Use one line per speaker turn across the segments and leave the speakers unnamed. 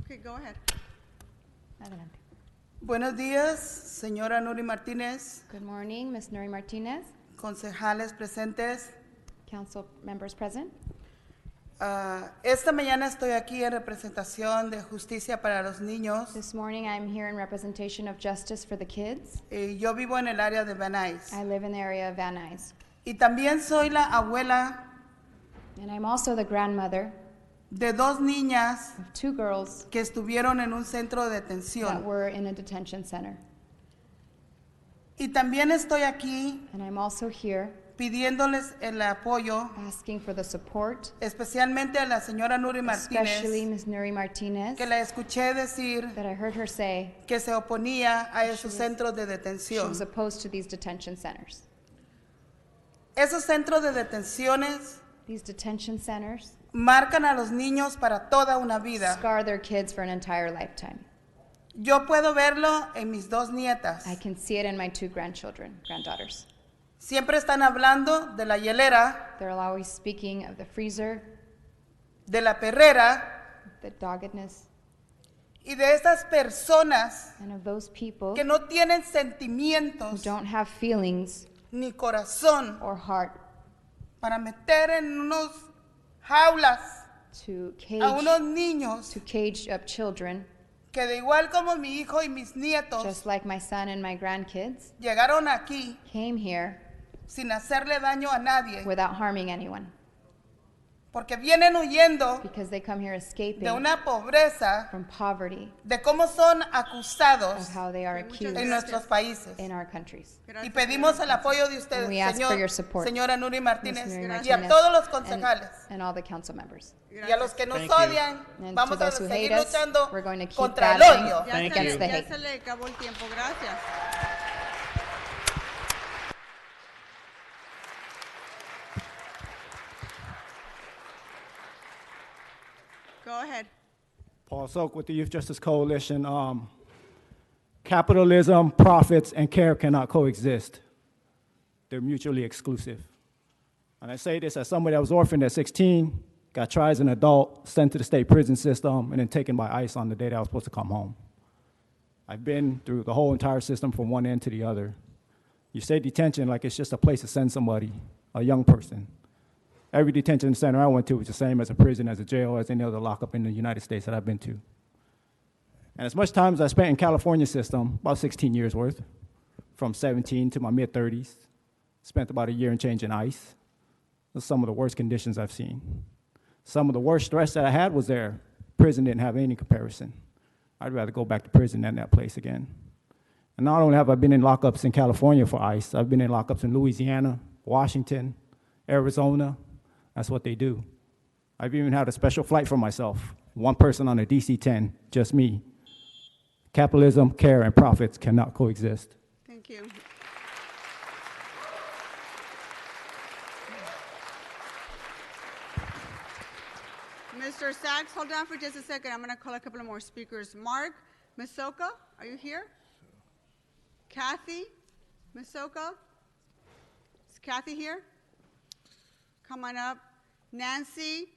Okay, go ahead.
Adelante.
Buenos días, señora Nuri Martínez,
Good morning, Ms. Nuri Martinez,
concejales presentes.
council members present.
Ah, esta mañana estoy aquí en representación de Justicia para los Niños.
This morning, I'm here in representation of Justice for the Kids.
Eh, yo vivo en el área de Van
I
Nuys.
live in the area of Van Nuys.
Y también soy la abuela
And I'm also the grandmother
de dos niñas
of two girls
que estuvieron en un centro de
that
detención.
were in a detention center.
Y también estoy aquí
And I'm also here
pidiéndoles el apoyo,
asking for the support,
especialmente a la señora Nuri
especially
Martínez,
Ms. Nuri Martinez,
que la escuché decir
that I heard her say
que se oponía a esos
was-
centros de
she
detención.
was opposed to these detention centers.
Esos centros de detenciones
These detention centers
marcan a los niños para toda una vida.
scar their kids for an entire lifetime.
Yo puedo verlo en mis dos nietas.
I can see it in my two grandchildren, granddaughters.
Siempre están hablando de la hielera,
They're always speaking of the freezer,
de la perrera
the doggedness,
y de esas personas
and of those people
que no tienen
who
sentimientos
don't have feelings
ni corazón
or heart
para meter en unos jaulas
to cage
a unos niños
to cage up children,
que de igual como mi hijo y mis nietos
just like my son and my grandkids
llegaron aquí
came here
sin hacerle daño a nadie,
without harming anyone
porque vienen huyendo
because they come here
de
escaping
una pobreza
from poverty
de cómo son acusados
of how they are
Okay, muchas
accused
en nuestros países.
in our countries.
Y pues,
Gracias,
pedimos
señora.
el apoyo de ustedes,
And we ask for your
señor,
support.
señora Nuri Martínez,
Ms.
y a
Nuri Martinez
todos los
and-
concejales.
and all the council members.
Y a los que nos
Thank you.
odian,
And
vamos
to
a
those who
seguir
hate us,
luchando
we're going to keep
contra el
battling.
odio.
Ya
Thank
se le- ya
you.
Thank you.
se le acabó el tiempo, gracias. Go ahead.
Paul Soak with the Youth Justice Coalition. Um, capitalism, profits, and care cannot coexist. They're mutually exclusive. And I say this as somebody that was orphaned at 16, got tried as an adult, sent to the state prison system, and then taken by ICE on the day that I was supposed to come home. I've been through the whole entire system from one end to the other. You say detention like it's just a place to send somebody, a young person. Every detention center I went to was the same as a prison, as a jail, as any other lockup in the United States that I've been to. And as much time as I spent in California system, about 16 years worth, from 17 to my mid 30s, spent about a year and change in ICE. Those are some of the worst conditions I've seen. Some of the worst stress that I had was there. Prison didn't have any comparison. I'd rather go back to prison than that place again. And not only have I been in lockups in California for ICE, I've been in lockups in Louisiana, Washington, Arizona. That's what they do. I've even had a special flight for myself. One person on a DC 10, just me. Capitalism, care, and profits cannot coexist.
Thank you. Mr. Sachs, hold on for just a second. I'm going to call a couple of more speakers. Mark Masoka, are you here? Kathy Masoka? Is Kathy here? Come on up. Nancy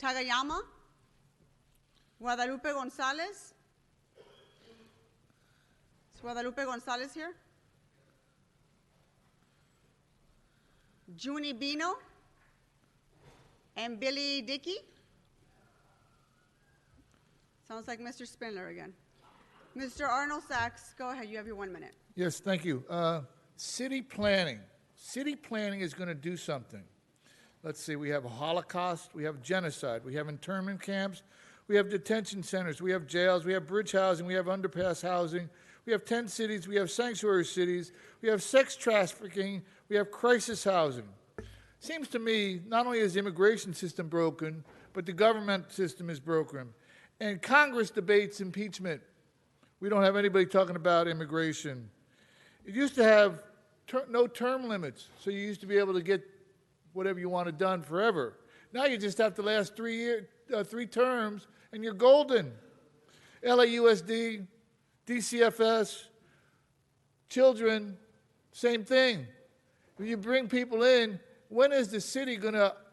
Tagayama? Guadalupe Gonzalez? Is Guadalupe Gonzalez here? Junie Bino? And Billy Dickey? Sounds like Mr. Spindler again. Mr. Arnold Sachs, go ahead, you have your one minute.
Yes, thank you. Uh, City planning. City planning is going to do something. Let's see, we have a Holocaust, we have genocide, we have internment camps, we have detention centers, we have jails, we have bridge housing, we have underpass housing, we have tent cities, we have sanctuary cities, we have sex trafficking, we have crisis housing. Seems to me not only is the immigration system broken, but the government system is broken. And Congress debates impeachment. We don't have anybody talking about immigration. It used to have ter- no term limits, so you used to be able to get whatever you wanted done forever. Now you just have to last three year, uh, three terms, and you're golden. LAUSD, DCFS, children, same thing. When you bring people in, when is the city going to